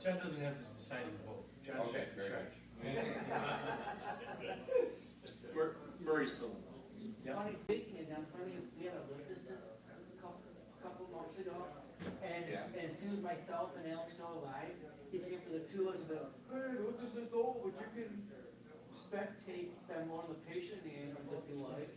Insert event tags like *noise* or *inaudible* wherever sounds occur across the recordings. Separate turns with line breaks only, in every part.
John doesn't have the deciding vote. John's
Okay,
just in
very
charge.
Mur- Murray's the one.
Funny, thinking of that, funny, we had a lift business a couple, couple months ago, and,
Yeah.
and Sue, myself, and Alex all alive, he came for the two of us, and go, hey, what does this all, but you can spectate them on the patient, the ambulance, if you like.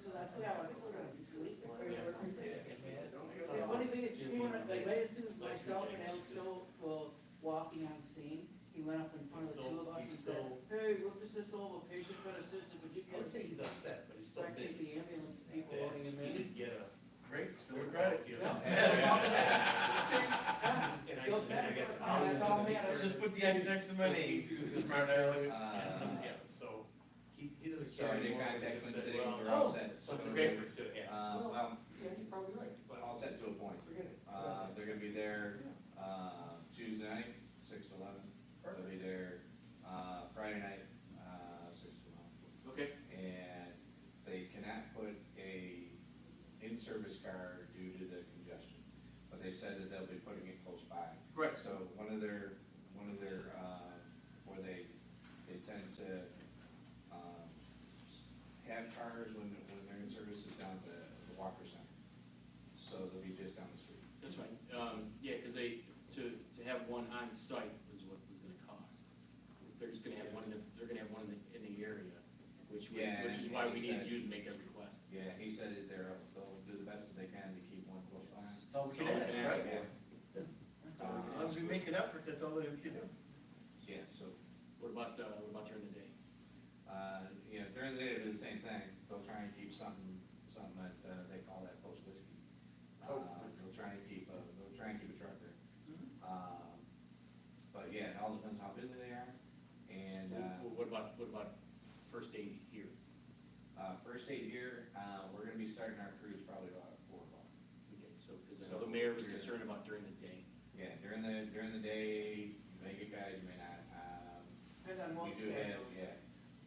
So that's what I was, we're gonna be doing, we're gonna be thinking, man. The funny thing is, he went up, like, right as soon as myself and Alex Stoll were walking on scene, he went up in front of the two of us and said, hey, what does this all, a patient got assisted, would you
I
get
would say he's upset, but he's still
Back to
big.
the ambulance people
Yeah.
loading him
He
in.
did get a great store credit, you know?
Yeah,
And I-
still
and I
better.
guess-
Oh, that's all man, I was
Just
just-
put the X next to my name. Smart aleck.
Uh,
*laughs* Yeah, so he, he doesn't.
So I
care
did
anymore.
contact
He
Twin
just said,
City,
well, oh,
they're
Oh,
all set.
Something Grapefruit should have happened.
Uh, well,
Yes, you're probably right,
but all set to a point.
forget it.
Uh, they're gonna be there, uh, Tuesday night, six to eleven. They'll be there, uh, Friday night, uh, six to eleven.
Okay.
And they cannot put a in-service car due to the congestion. But they said that they'll be putting it close by.
Right.
So one of their, one of their, uh, where they, they tend to, um, s- have cars when, when their in-service is down at the the Walker Center. So they'll be just down the street.
That's right. Um, yeah, because they, to, to have one on site was what was gonna cost. They're just gonna have one in the, they're gonna have one in the, in the area, which, we-
Yeah,
which is why we needed
exactly.
you to make that request.
Yeah, he said that they're, they'll do the best that they can to keep one close by.
That's all we
So
can
we
ask,
can
Yeah. Um,
right? As long
ask for it.
as we make an effort, that's all we can do.
Yeah, so
What about, uh, what about during the day?
Uh, you know, during the day, they do the same thing, they'll try and keep something, something that, uh, they call that post whiskey. Uh, they'll try and keep, uh, they'll try and keep a truck there. Um, but yeah, it all depends how busy they are, and,
Wh-
uh,
wh- What about, what about first aid here?
uh, first aid here, uh, we're gonna be starting our cruise probably about four o'clock.
Okay, so, because
So
the mayor was
you're-
concerned about during the day.
Yeah, during the, during the day, you may get guys, you may not, um,
Depends on
we
what
do have,
schedule.
yeah,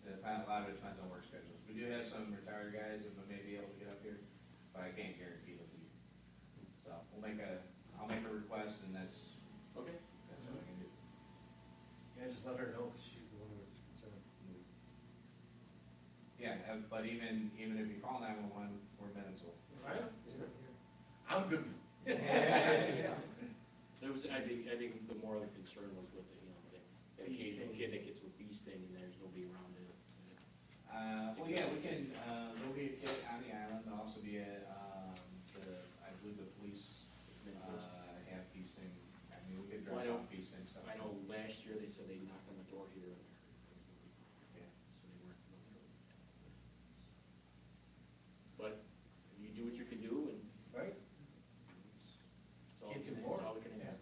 the, a lot of it depends on work schedules, we do have some retired guys that may be able to get up here, but I can't guarantee they'll be. here. So, we'll make a, I'll make a request, and that's,
Okay.
that's what I can do.
Yeah, just let her know, 'cause she's the one who was concerned.
Yeah, uh, but even, even if you call nine-one-one, we're minutes
*laughs*
old.
Right? I'm good.
There was, I think, I think the moral concern was with the, you know, that that
Bee
occasional
sting.
kid that gets a bee sting and there's nobody around to
Uh, well, yeah, we can, uh, there'll be a kid on the island, there'll also be a, um, the, I believe the police, uh, have feasting, I mean, we could
Well, I
drive
don't-
off feasting stuff.
I know last year they said they knocked on the door here and there.
Yeah.
So they weren't. familiar with that. But you do what you can do and
Right?
it's all,
Can't do
it's
more.
all we can ask.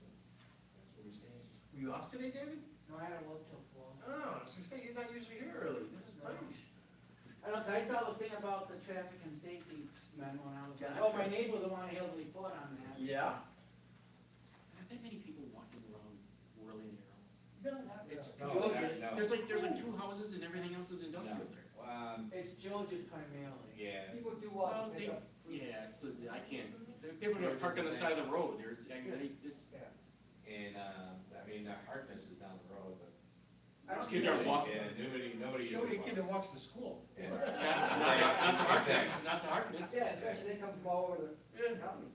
So, That's where we stand.
Were you off today, David?
No, I don't look till four.
Oh, I was gonna say, you're not usually here early. This is nice.
I don't, I saw the thing about the traffic and safety memo, and I was like,
Gotcha.
oh, my neighbor the one who held the report on that.
Yeah.
Not that many people walking around whirling their own.
No, not
It's
really.
No,
Georgia,
that- no.
there's like, there's like two houses and everything else is industrial there.
Um,
It's Georgia primarily.
yeah,
People do
Well,
walk to pick
they-
up. fruits.
Yeah, it's, it's- I can't, they're- they're gonna park on the side of the road, there's, I, I, it's.
Yeah.
and, um, I mean, uh, Harkness is down the road, but.
I don't
Kids aren't
care.
walking.
Yeah, nobody, nobody.
Show me a
usually
kid that walks to school.
walks. Yeah.
Yeah, Not to not to Harkness, not to Harkness,
Yeah, especially they come from all over the
*laughs*
county.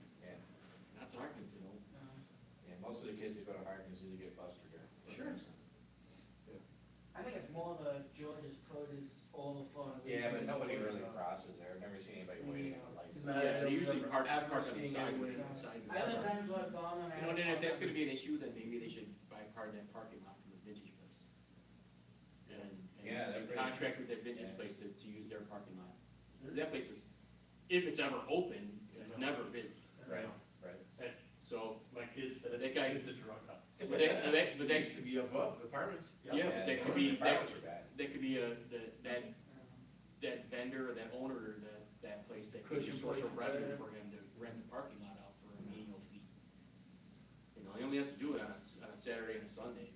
not to Harkness, you know.
Um,
Yeah, most of the kids that go to Harkness either get bused or go.
Sure.
I think it's more the Georgia's produce overflowing.
Yeah, but nobody really crosses there, I've never seen anybody waiting at the light.
No, I
Yeah,
don't
they usually
remember
park,
ever
park on the
seeing
side,
anybody
on the side.
I live down Blood Bomb and I.
You know, then if that's gonna be an issue, then maybe they should buy part of that parking lot from the vintage place. And,
Yeah,
and
that'd
they
be-
contract with that vintage
yeah.
place to, to use their parking lot. 'Cause That place is, if it's ever open, it's never busy,
Right, right.
so,
My kids said,
That guy-
"It's a drug up.
but that, but that, but
They
that,
used to be above the apartments.
Yeah, but that could be-
The Harkness are bad.
that could be a, that, that
Um,
that vendor or that owner or that, that place that could be a
Cushion
source of
place,
revenue
yeah.
for him to rent the parking lot out for a menial fee. You know, he only has to do it on a, s- on a Saturday and a Sunday,